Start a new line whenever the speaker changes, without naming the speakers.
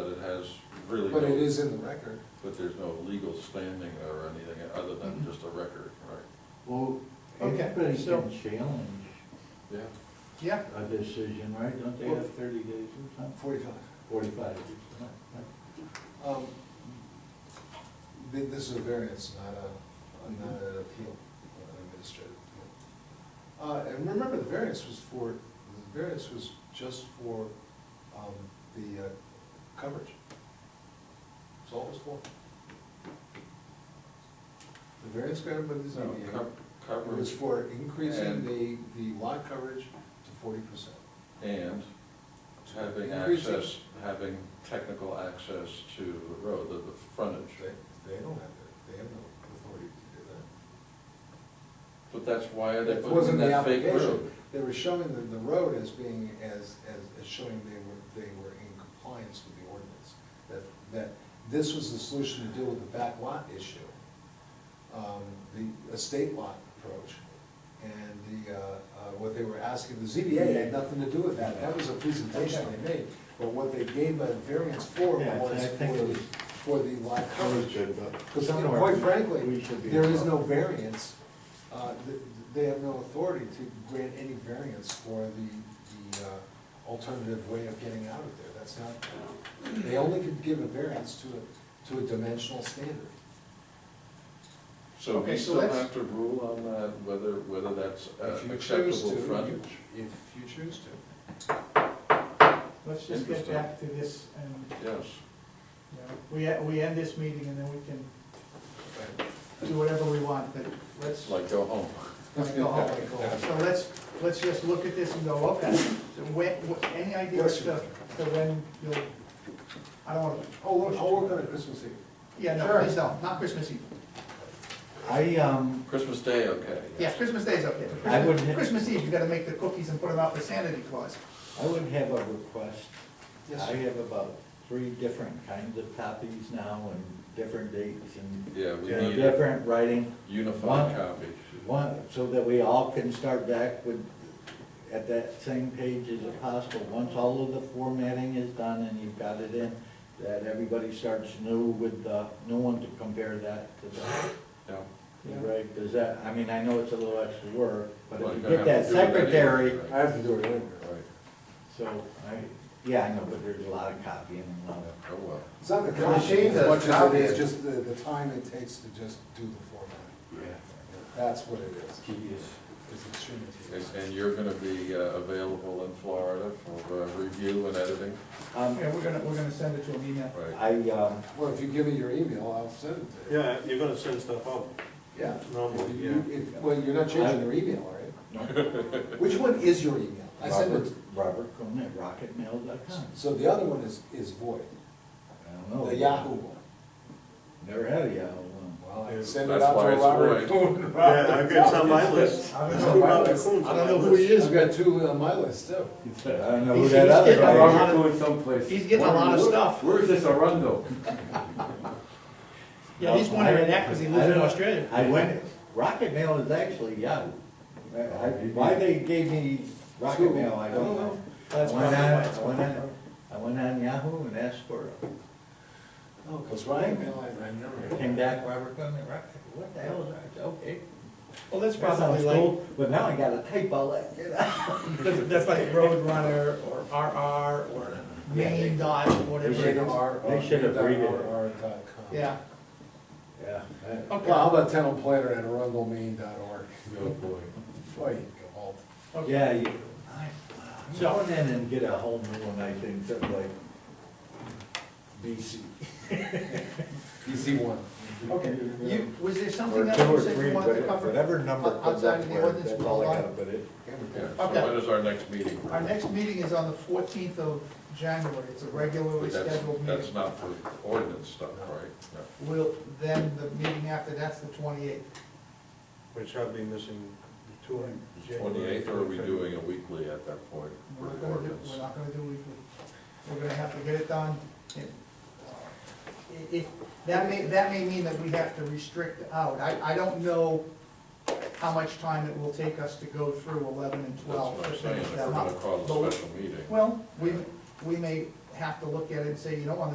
has really.
But
no-
it is in the record.
But there's no legal standing or anything other than
Mm-hmm.
just a record, right?
Well,
Okay,
everybody
so-
can challenge
Yeah.
Yeah,
a decision, right? Don't they have thirty days or something?
Forty-five.
Forty-five days. right?
Um, thi- This is a variance, not a, not an appeal, an administrative appeal. Uh, And remember, the variance was for, the variance was just for um, the uh, coverage. That's all it was for. The variance granted by the
No,
ZBA
co-
was
Coverage
for increasing
And-
the, the lot coverage to forty percent.
and having
Increasing.
access, having technical access to the road, the, the frontage.
They, they don't have that, they have no authority to do that.
But that's why they
That
put in
wasn't the
that fake
application.
road.
They were showing the, the road as being, as, as, as showing they were, they were in compliance with the ordinance. That, that this was the solution to deal with the back lot issue. Um, the estate lot approach. And the, uh, uh, what they were asking, the ZBA had nothing to do with that. That was a presentation they made. But what they gave a variance for
Yeah,
was
I think it
for,
was-
for the lot coverage. Because
Somewhere
quite
we
frankly,
should be
there is no
involved.
variance, uh, th- they have no authority to grant any variance for the, the uh, alternative way of getting out of there, that's not, they only could give a variance to a, to a dimensional standard.
So
Okay,
we
so
still
let's-
have to rule on that, whether, whether that's uh,
If you choose to,
acceptable
you-
frontage.
If you choose to.
let's just get
Interesting.
back to this and,
Yes,
you know, we, e- we end this meeting and then we can do whatever we want, but let's
like go home.
go home. So let's, let's just look at this and go, okay, so when, wh- any idea as to, to when you'll, I don't wanna,
Oh, look, I'll work on it Christmas Eve.
yeah, no,
Sure.
please don't, not Christmas Eve.
I, um,
Christmas Day, okay.
Yeah, Christmas Day is okay. but
I would-
Christmas- Christmas Eve, you gotta make the cookies and put them out for Santa Claus.
I would have a request.
Yes,
I
sir.
have about three different kinds of copies now and different dates and
Yeah, we
and
need a
different writing.
unified
One-
copy.
One, so that we all can start back with, at that same page as possible. Once all of the formatting is done and you've got it in, that everybody starts new with the new one to compare that to the,
Yeah.
right? Does that, I mean, I know it's a little extra work, but
Well,
if you
you're gonna
get
have to
that
do it anyway,
secretary,
right?
I have to do it anyway.
Right,
so I, yeah, I know, but there's a lot of copying and a lot of
oh well.
It's not the
The machine
content as
does
much as
copy
it is
it.
just the, the time it takes to just do the formatting, that's what it is.
tedious.
It's extremely
And-
tedious.
And you're gonna be uh, available in Florida for uh, review and editing?
Um,
Yeah, we're gonna, we're gonna send it to an email.
Right.
I, um,
Well, if you give me your email, I'll send it to you.
Yeah, you're gonna send stuff out.
Yeah.
Normally,
If you- if- Well, you're not changing your email, are you?
no,
Which one is your email? I send
Robert,
it,
Robert Coon at rocketmail.com.
so the other one is, is void,
I don't
Oh.
know.
the Yahoo one.
Never had a Yahoo one.
Well, I
Yeah,
send it
that's
out
why
to
it's
Robert
void.
Coon.
Yeah, I've got some on my list.
I don't
It's
know
two
my
Robert
list.
Coons
I don't
on my
know who
list.
He is, I've got two on my list too.
I don't know who
He's-
that
he's
other
getting a
guy
lot-
is.
Robert Cohen's someplace.
He's getting a lot of
Where-
stuff.
Where's this Arundel?
Yeah, he's wondering that, cause he lives in Australia.
I went, Rocket Mail is actually Yahoo. I- I- Why they gave me Rocket Mail, I don't know. I
That's
went
probably
on,
why
I
it's-
went on, I went on Yahoo and asked for it.
Oh, because Ryan, I remember.
Came back, Robert Coon at Rocket, what the hell is that? I said, Okay.
Well, that's
That
probably
sounds
like,
cool, but now I gotta type all that, you know?
that's, that's like Roadrunner or RR or Main Dot,
They
whatever.
should
it
have-
is.
they should have read it.
Yeah,
Yeah. I-
Well, how
okay,
about town planner at arundelmaine.org?
Oh, boy.
Boy, you go all-
okay.
Yeah, you, I, I'm going in and get a whole new one, I think, something like BC.
DC one.
Okay, you, was there
Or
something else
two
you
or
said
three,
you wanted to
but
cover?
whatever number comes
Outside
up
of the
where,
ordinance,
that's
we'll
all I
hold
gotta put in.
Yeah, so
Okay.
when is our next meeting?
Our next meeting is on the fourteenth of January, it's a regularly
But that's-
scheduled
That's
meeting.
not for ordinance stuff, right? No.
We'll, then the meeting after that's the twenty-eighth.
Which I'll be missing two in January.
Twenty-eighth, or are we doing a weekly at that point for
We're not
the
gonna do,
ordinance?
we're not gonna do weekly. We're gonna have to get it done. If- If, that may, that may mean that we have to restrict out. I, I don't know how much time it will take us to go through eleven and
That's
twelve.
what I'm
to
saying,
finish
if
them
we're
up.
gonna call
But we-
a special meeting.
Well, we, we may have to look at it and say, you know, on the